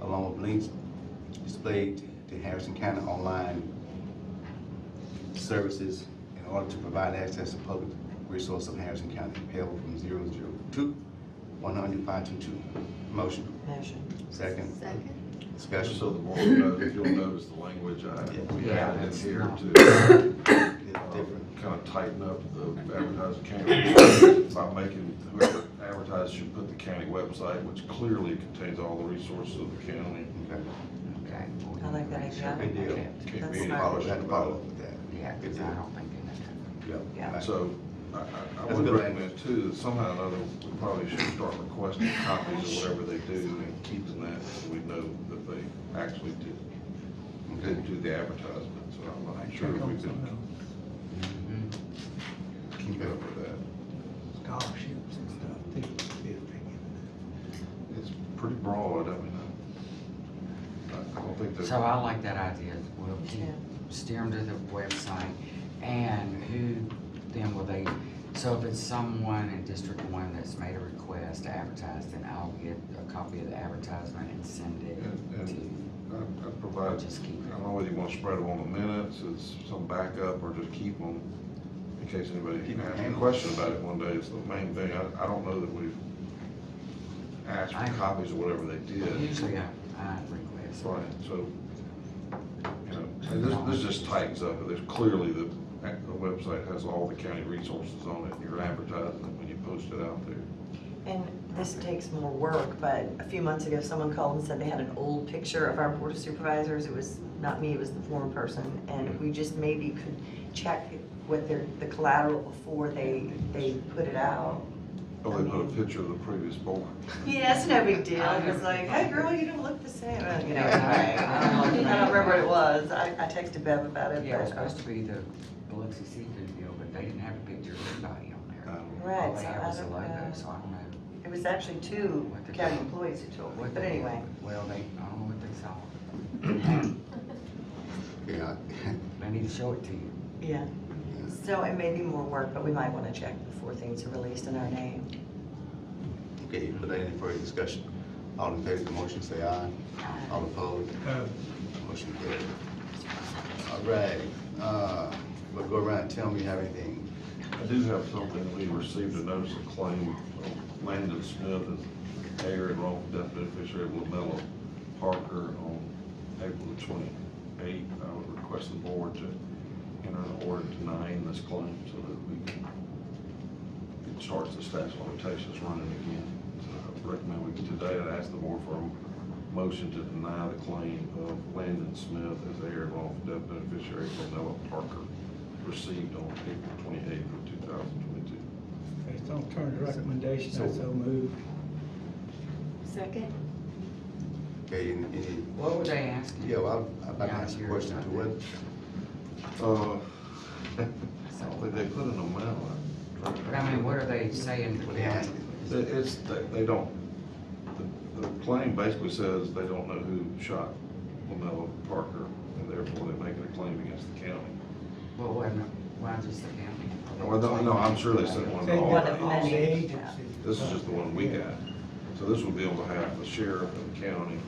of links displayed to Harrison County online services in order to provide access to public resource of Harrison County payable from zero zero two one hundred five two two. Motion, Motion. second, Second. discussion. So the board knows, you'll notice the language I, we Yeah. added in here to It's different. kind of tighten up the advertising county by making, whoever advertises should put the county website, which clearly contains all the resources of the county. Okay. Okay. I like that idea. Big deal. Can't That's be any smart. Follow, we question have to follow about up with that. Yeah, because I don't think they know. Yeah. Yeah. Right. So I, I, I That's would good. recommend too, that somehow or another, we probably should start requesting copies of whatever they do and keeping that so we know that they actually did, Okay. did do the advertisement. So I'm not sure if we can keep up with that. scholarships and stuff, I think it's a big thing. It's pretty broad, I mean, I, I don't think there's. So I like that idea, we'll keep- Yeah. steer them to the website, and who, then will they, so if it's someone in District One that's made a request to advertise, then I'll get a copy of the advertisement and send And- it and- to, I, I provide, just keep I it. don't know whether you want to spread them on the minutes, it's some backup, or just keep them in case anybody Keep has a them. question about it one day, it's the main thing, I, I don't know that we've asked I- for copies or whatever they did. Usually I, I request. Right, so, you know, and this, this just tightens up, there's clearly the, the website has all the county resources on it, you're advertising it when you post it out there. And this takes more work, but a few months ago, someone called and said they had an old picture of our board of supervisors. It was not me, it was the former person. And we just maybe could check what their, the collateral before they, they put it out. Oh, they put a picture of the previous board. Yeah, it's no big deal. It was like, hey, girl, you don't look the same. Uh, You know, anyway, I don't I don't remember what it was. I, I texted Bev about it, Yeah, it was but. uh, supposed to be the Biloxi Seafood deal, but they didn't have a picture of anybody on there. All Right, they so had I was a don't logo, know. so I don't know. It was actually two What the- county employees who told me, what but they- anyway. Well, they, I don't know what they saw, Yeah. they need to show it to you. Yeah, so it may be more work, but we might want to check before things are released in our name. Okay, without any further discussion, all in favor of the motion, say aye. All opposed? Motion carried. All right, uh, we'll go around and tell me you have anything. I do have something, we received a notice of claim of Landon Smith as heir and wrongful death beneficiary of Lamella Parker on April the twenty-eighth. I would request the board to enter an order denying this claim so that we can, it starts the statute of limitations running again. So I recommend we, today, I'd ask the board for a motion to deny the claim of Landon Smith as heir and wrongful death beneficiary of Lamella Parker received on April twenty-eighth of two thousand twenty-two. Based on attorney recommendation, I so moved. Second. Okay, any, any, What were they asking? yeah, well, I- I'd like to ask you a question too. What, Uh, but they put in a memo. But I mean, what are they saying? what they asking? It- It's, they, they don't, the, the claim basically says they don't know who shot Lamella Parker, and therefore they're making a claim against the county. Well, why, not- why just the county? Well, no, no, I'm sure they sent one to all. One of the many. agencies. This is just the one we got. So this would be on behalf of the sheriff and the county,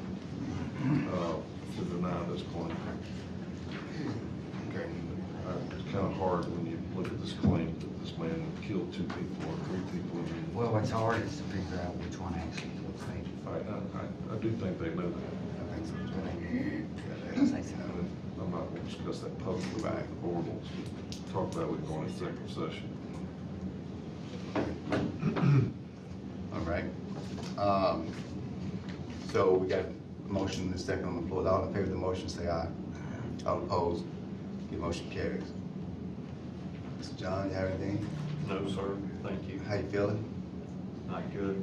uh, to deny this claim. Okay, Uh, It's kind of hard when you look at this claim that this man killed two people or three people. I mean, Well, what's hard is to figure out which one actually looks like, I, I- I, I do think they know that. I think so. but I Yeah, didn't say that's- so. And I'm not going to discuss that publicly with the board. We'll Talk about it going into executive session. All right. Um, so we got a motion and a second on the floor. All in favor of the motion, say aye. All opposed? The motion carries. Mr. John, you have anything? No, sir, thank you. How you feeling? Not good.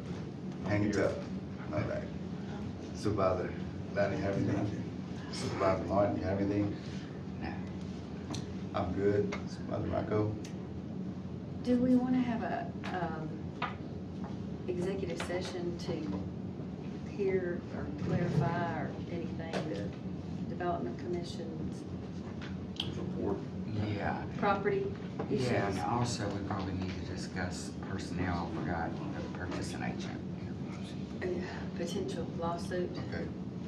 Hang it up. All right. Supervisor Lanning, you have anything? Supervisor Martin, you have anything? No. I'm good. Supervisor Rocco? Do we want to have a, um, executive session to hear or clarify or anything, the Development Commission's The board, Yeah, property issues? yeah, and also we probably need to discuss personnel, I forgot the purchasing agent. Yeah, Potential lawsuit? Okay.